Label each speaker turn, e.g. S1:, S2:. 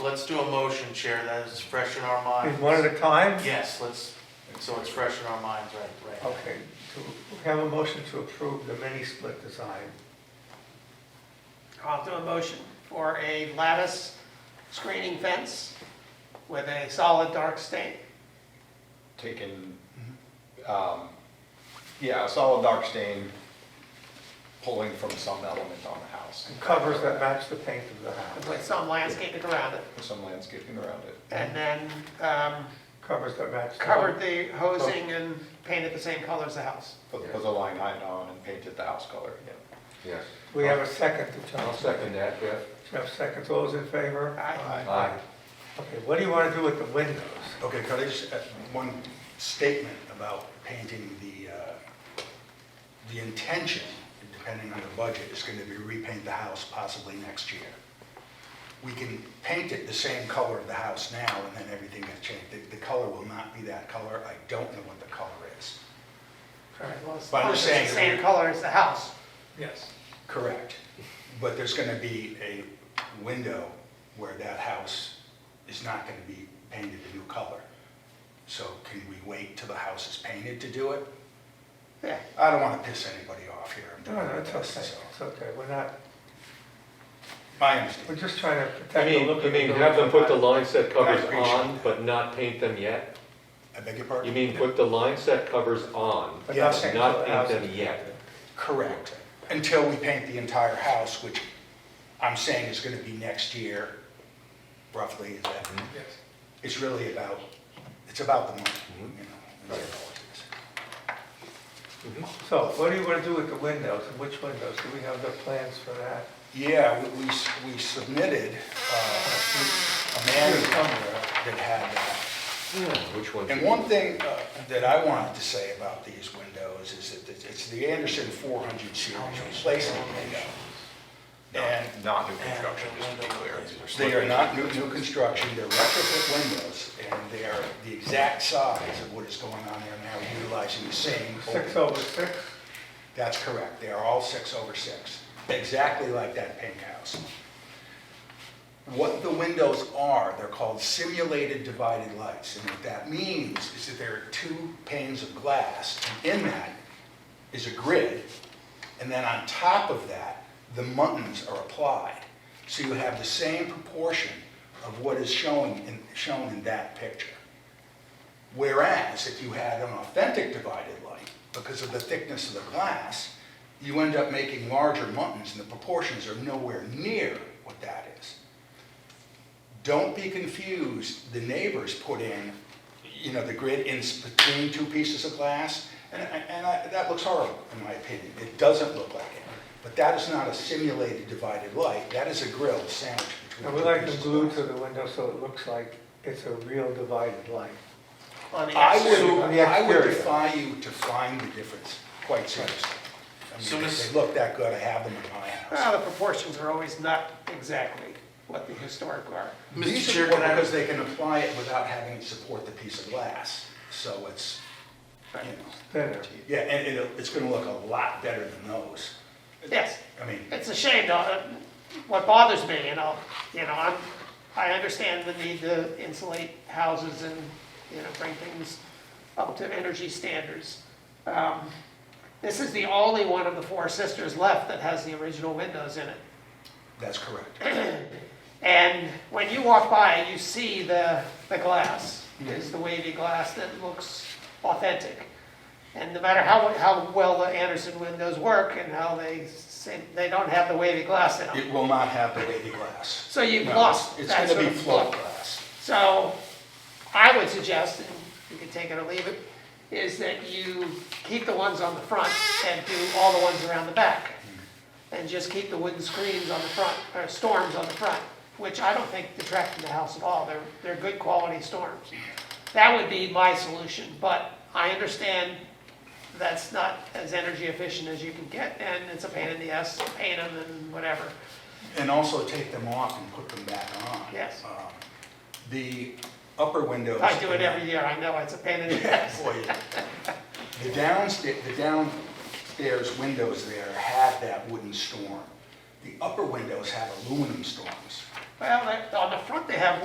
S1: let's do a motion, Chair, that is fresh in our minds.
S2: Is one at a time?
S1: Yes, let's, so it's fresh in our minds, right, right.
S2: Okay, to have a motion to approve the mini split design.
S3: I'll do a motion for a lattice screening fence with a solid dark stain.
S4: taken, um, yeah, a solid dark stain pulling from some element on the house.
S2: and Covers that match the paint of the house.
S3: with some landscaping around it,
S4: Some landscaping around it.
S3: and then um,
S2: Covers that match. the-
S3: covered the hosing and painted the same color as the house.
S4: Put, put the line height on and painted the house color again.
S5: Yes,
S2: We have a second to
S5: I'll
S2: Jeff.
S5: second that, Jeff.
S2: Jeff seconds, all those in favor?
S3: Aye.
S5: Aye.
S2: Okay, what do you want to do with the windows?
S6: Okay, could I just, add one statement about painting the, uh, the intention, depending on the budget, is going to be repaint the house possibly next year. We can paint it the same color of the house now, and then everything gets changed. The, the color will not be that color. I don't know what the color is.
S3: Well, it's
S6: But I'm just saying
S3: The
S6: that
S3: same
S6: we-
S3: color as the house.
S2: Yes.
S6: Correct. But there's going to be a window where that house is not going to be painted a new color. So can we wait till the house is painted to do it?
S3: Yeah,
S6: I don't want to piss anybody off here. I'm
S2: No,
S6: doing
S2: no,
S6: my
S2: it's
S6: best,
S2: okay,
S6: so.
S2: it's okay, we're not,
S6: I
S2: we're
S6: understand.
S2: just trying to
S7: I
S2: protect the
S7: mean,
S2: look of the
S7: you mean
S2: building
S7: have them put the
S2: from
S7: line set covers
S6: I appreciate
S7: on,
S6: that.
S7: but not paint them yet?
S6: I beg your
S7: You
S6: pardon?
S7: mean put the line set covers on,
S2: But
S6: Yes.
S2: nothing
S7: Not
S2: till the
S7: paint
S2: house
S7: them
S2: is-
S7: yet.
S6: Correct. Until we paint the entire house, which I'm saying is going to be next year, roughly. is that-
S7: Mm-hmm.
S2: Yes.
S6: It's really about, it's about the money, you know. is all it is.
S2: So what do you want to do with the windows, and which windows? Do we have the plans for that?
S6: Yeah, we- we, s- we submitted uh, a manual that had that.
S7: Which ones?
S6: And one thing uh, that I wanted to say about these windows is that it's- it's the Anderson 400 series replacement window. And
S4: Not new construction, just to be clear.
S6: they are not new, new construction, they're retrofit windows, and they are the exact size of what is going on there now, utilizing the same.
S2: Six over six?
S6: That's correct, they are all six over six, exactly like that pink house. What the windows are, they're called simulated divided lights, and what that means is that there are two panes of glass, and in that is a grid, and then on top of that, the muttons are applied. So you have the same proportion of what is showing in, shown in that picture. Whereas if you had an authentic divided light, because of the thickness of the glass, you end up making larger muttons and the proportions are nowhere near what that is. Don't be confused, the neighbors put in, you know, the grid in s- between two pieces of glass, and, I- and I, that looks horrible, in my opinion. It doesn't look like it. But that is not a simulated divided light, that is a grill sandwiched between
S2: And we
S6: two
S2: like to
S6: pieces of
S2: glue
S6: glass.
S2: to the window so it looks like it's a real divided line.
S3: on the
S6: I
S3: exterior.
S2: on
S6: would,
S2: the
S6: I would
S2: exterior.
S6: defy you to find the difference, quite seriously. I
S1: So
S6: mean,
S1: this-
S6: if they look that good, I have them in my house.
S3: Well, the proportions are always not exactly what the historic are.
S1: Mr.
S6: These are
S1: Chair,
S6: more
S1: can I,
S6: Because they can apply it without having to support the piece of glass, so it's, you know,
S2: Thinner.
S6: yeah, and it'll, it's gonna look a lot better than those.
S3: Yes.
S6: I mean,
S3: It's a shame, though, that what bothers me, you know, you know, I'm, I understand the need to insulate houses and, you know, bring things up to energy standards. Um, This is the only one of the Four Sisters left that has the original windows in it.
S6: that's correct.
S3: And when you walk by, you see the, the glass, It's the wavy glass that looks authentic. And no matter how, how well the Anderson windows work and how they, say- they don't have the wavy glass in them.
S6: It will not have the wavy glass.
S3: So you've
S6: No,
S3: lost
S6: It's
S3: that
S6: gonna
S3: sort
S6: be
S3: of
S6: float
S3: look.
S6: glass.
S3: So I would suggest, and you can take it or leave it, is that you keep the ones on the front and do all the ones around the back. And just keep the wooden screens on the front, or storms on the front, which I don't think detract from the house at all. They're, they're good quality storms. That would be my solution, but I understand that's not as energy efficient as you can get, and it's a pain in the ass, to paint them and whatever.
S6: And also take them off and put them back on.
S3: Yes.
S6: Um, The upper windows.
S3: I do it every year, I know, it's a pain in the ass.
S6: for you. The downstairs, the downstairs windows there have that wooden storm. The upper windows have aluminum storms.
S3: Well, they- on the front, they have